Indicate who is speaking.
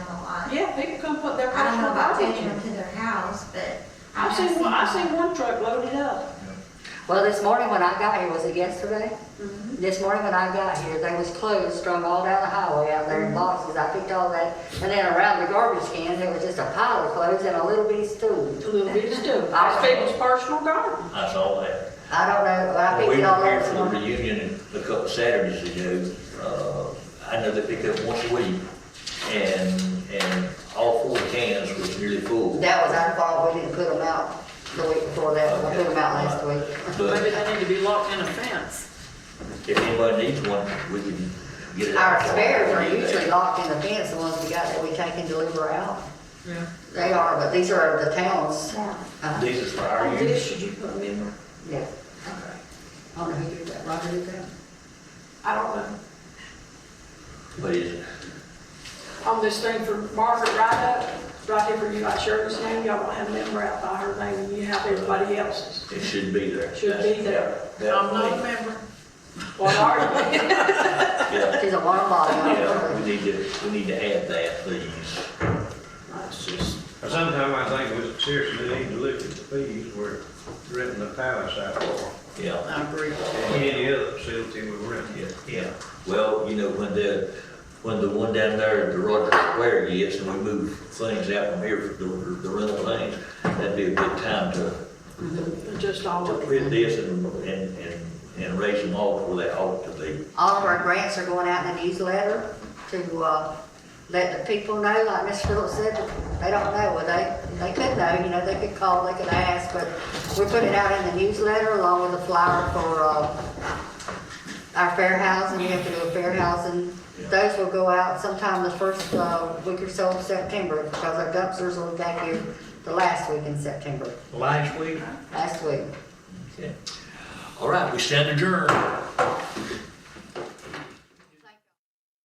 Speaker 1: gonna put their
Speaker 2: I don't know
Speaker 1: personal
Speaker 2: about
Speaker 1: garbage
Speaker 2: taking them
Speaker 1: in.
Speaker 2: to their house, but.
Speaker 1: I've seen, one- I've seen one truck loaded up.
Speaker 3: Well, this morning when I got here, was it yesterday? This morning when I got here, they was clothes strung all down the highway out there in boxes. I picked all that, and then around the garbage cans, there was just a pile of clothes and a little bitty stool.
Speaker 1: A little bit of stuff.
Speaker 3: I-
Speaker 1: That's people's personal garbage.
Speaker 4: I saw that.
Speaker 3: I don't know, but I
Speaker 4: When
Speaker 3: picked
Speaker 4: We
Speaker 3: it all
Speaker 4: were here
Speaker 3: up.
Speaker 4: for
Speaker 3: this
Speaker 4: the
Speaker 3: morning.
Speaker 4: reunion a couple Saturdays ago, uh, I know they pick up once a week, and, and all four cans was nearly full.
Speaker 3: That was our fault, we didn't put them out the week before that, we put them out last week.
Speaker 1: Maybe
Speaker 4: But
Speaker 1: they need to be locked in a fence.
Speaker 4: if anybody needs one, we can get it out.
Speaker 3: Our spares are usually locked in the fence, the ones we got that we take and deliver out.
Speaker 1: Yeah.
Speaker 3: They are, but these are the towns. Uh,
Speaker 4: These is for our
Speaker 1: Or
Speaker 4: use.
Speaker 1: this, should you put them in?
Speaker 3: Yeah. I don't know who did that, Roger did that?
Speaker 1: I don't know.
Speaker 4: But it's,
Speaker 1: On this thing for Margaret Ryder, right here for you, I share this name, y'all don't have a member out by her name, and you have everybody else's.
Speaker 4: it should be there.
Speaker 1: Should be there.
Speaker 4: That-
Speaker 1: member. Well, are you?
Speaker 4: Yeah,
Speaker 3: She's a water bottle.
Speaker 4: yeah, we need to, we need to add that, please. It's just,
Speaker 5: Sometimes I think we seriously need to look at the fees we're renting the palace out for,
Speaker 4: yeah.
Speaker 1: I agree.
Speaker 5: and any other facility we rent.
Speaker 4: Yeah, yeah. Well, you know, when the, when the one down there at the Roger Square gets and we move things out from here for the, the rental things, that'd be a good time to,
Speaker 1: Just all
Speaker 4: to
Speaker 1: of it.
Speaker 4: print this and, and, and, and raise them all where they ought to be.
Speaker 3: All of our grants are going out in a newsletter to, uh, let the people know, like Ms. Phillips said, they don't know, well, they, they could know, you know, they could call, they could ask, but we put it out in the newsletter along with a flyer for, uh, our fair housing, we have to do a fair housing. Those will go out sometime the first, uh, week or so of September, because our dumpsters will be back here the last week in September,
Speaker 4: Last week?
Speaker 3: last week.
Speaker 4: All right, we stand adjourned.